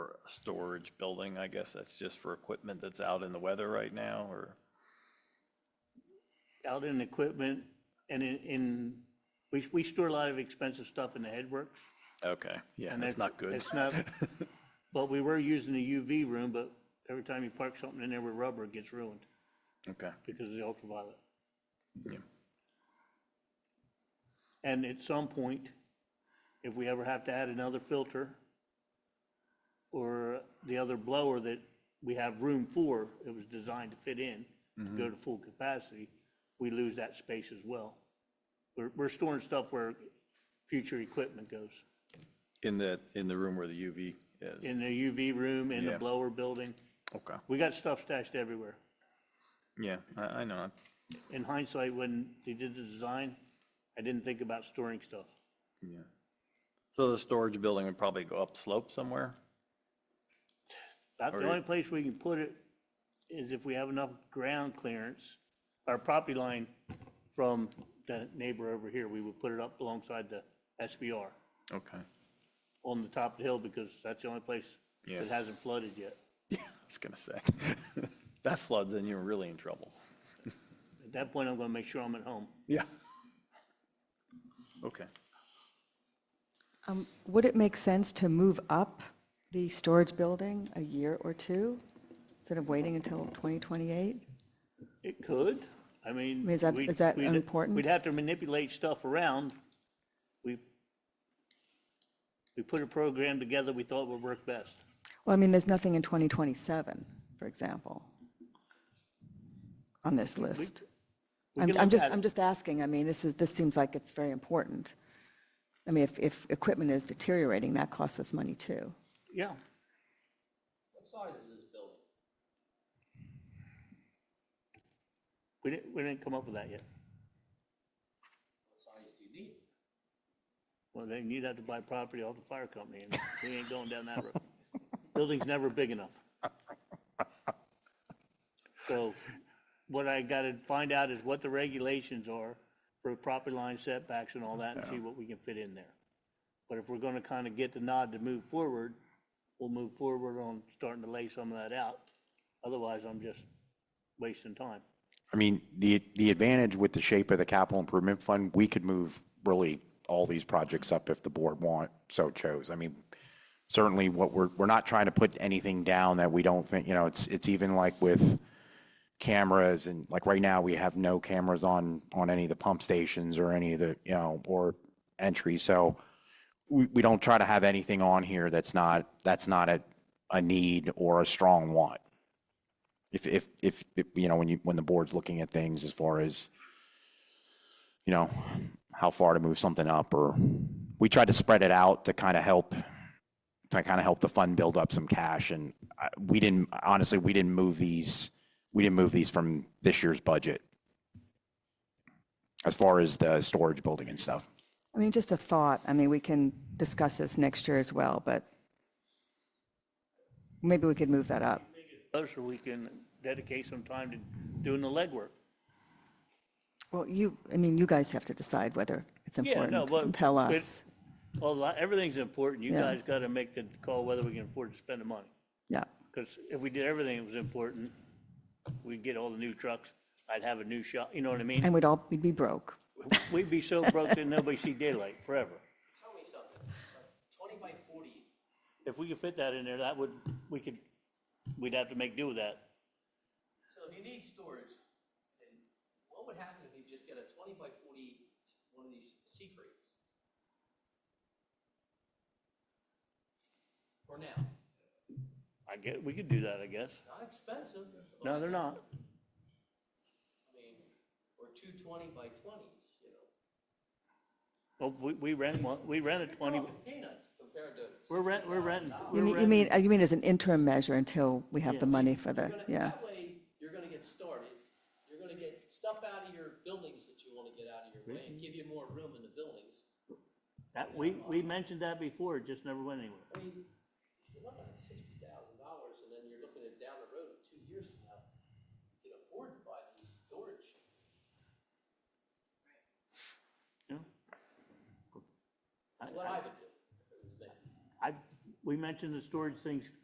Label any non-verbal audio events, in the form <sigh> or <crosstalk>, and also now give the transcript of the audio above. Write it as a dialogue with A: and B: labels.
A: storage building, I guess that's just for equipment that's out in the weather right now, or?
B: out in equipment and in, in, we, we store a lot of expensive stuff in the headworks.
A: Okay, yeah,
B: and
A: that's not good. <laughs>
B: It's not, well, we were using the UV room, but every time you park something in there with rubber, it gets ruined
A: Okay,
B: because of the ultraviolet.
A: yeah,
B: And at some point, if we ever have to add another filter or the other blower that we have room for, it was designed to fit in, to
A: Mm-hmm.
B: go to full capacity, we lose that space as well. We're, we're storing stuff where future equipment goes,
A: in the, in the room where the UV is,
B: in the UV room, in the
A: Yeah.
B: blower building.
A: okay,
B: We got stuff stashed everywhere.
A: yeah, I, I know,
B: In hindsight, when they did the design, I didn't think about storing stuff.
A: yeah. So the storage building would probably go up slope somewhere?
B: About
A: Or
B: the
A: you-
B: only place we can put it is if we have enough ground clearance, our property line from the neighbor over here, we would put it up alongside the SBR
A: Okay, <laughs>
B: on the top of the hill because that's the only place
A: Yeah.
B: that hasn't flooded yet.
A: yeah, I was gonna say, <laughs> that floods and you're really in trouble.
B: At that point, I'm gonna make sure I'm at home.
A: Yeah. Okay,
C: Um, Would it make sense to move up the storage building a year or two instead of waiting until 2028?
B: It could, I mean.
C: Is that-
B: we'd-
C: is that
B: we'd-
C: important?
B: We'd have to manipulate stuff around. We, we put a program together we thought would work best.
C: Well, I mean, there's nothing in 2027, for example, on this list.
B: We
C: I'm
B: can
C: I'm
B: look
C: just,
B: at it.
C: I'm just asking, I mean, this is, this seems like it's very important. I mean, if, if equipment is deteriorating, that costs us money too.
B: Yeah,
D: What size is this building?
B: we didn't, we didn't come up with that yet.
D: What size do you need?
B: Well, then you'd have to buy property off the fire company, and we ain't going down that road. Building's never big enough. So what I gotta find out is what the regulations are for property line setbacks and all that, and see what we can fit in there. But if we're gonna kind of get the nod to move forward, we'll move forward on starting to lay some of that out. Otherwise, I'm just wasting time.
E: I mean, the, the advantage with the shape of the capital improvement fund, we could move really all these projects up if the board want, so chose. I mean, certainly what we're, we're not trying to put anything down that we don't think, you know, it's, it's even like with cameras and like right now, we have no cameras on, on any of the pump stations or any of the, you know, or entry. So we, we don't try to have anything on here that's not, that's not a, a need or a strong want if, if, if, if, you know, when you, when the board's looking at things as far as, you know, how far to move something up or, we tried to spread it out to kind of help, to kind of help the fund build up some cash and I- we didn't, honestly, we didn't move these, we didn't move these from this year's budget as far as the storage building and stuff.
C: I mean, just a thought, I mean, we can discuss this next year as well, but maybe we could move that up.
B: Us, so we can dedicate some time to doing the legwork.
C: Well, you, I mean, you guys have to decide whether it's
B: Yeah, no,
C: important,
B: but-
C: tell
B: but-
C: us,
B: Well, li- everything's important. You
C: Yeah.
B: guys got to make the call whether we can afford to spend the money.
C: yeah.
B: Because if we did everything that was important, we'd get all the new trucks. I'd have a new shop, you know what I mean?
C: <laughs> And we'd all, we'd be broke.
B: We'd be so broke that nobody see daylight forever.
D: Tell me something, Like, twenty by forty,
B: If we could fit that in there, that would, we could, we'd have to make do with that.
D: so if you need storage, then what would happen if you just get a twenty by forty, one of these secrets? For now,
B: I get, we could do that, I guess.
D: not expensive. but
B: No, they're not.
D: I mean, or two twenty by twenties, you know.
B: Well, we, we rent one, we rent a twenty,
D: You're talking peanuts compared to.
B: we're rent, we're renting.
C: You mean, you mean, uh, you mean as an interim measure until we have the money for the,
D: You're gonna-
C: yeah.
D: That way, you're gonna get started, you're gonna get stuff out of your buildings that you wanna get out of your way
B: Mm-hmm.
D: and give you more room in the buildings.
B: That, we, we mentioned that before, it just never went anywhere.
D: I mean, you're looking at sixty thousand dollars and then you're looking at down the road, two years from now, you can afford to buy these storage.
B: you know?
D: That's what I would do. if it was me.
B: I, we mentioned the storage things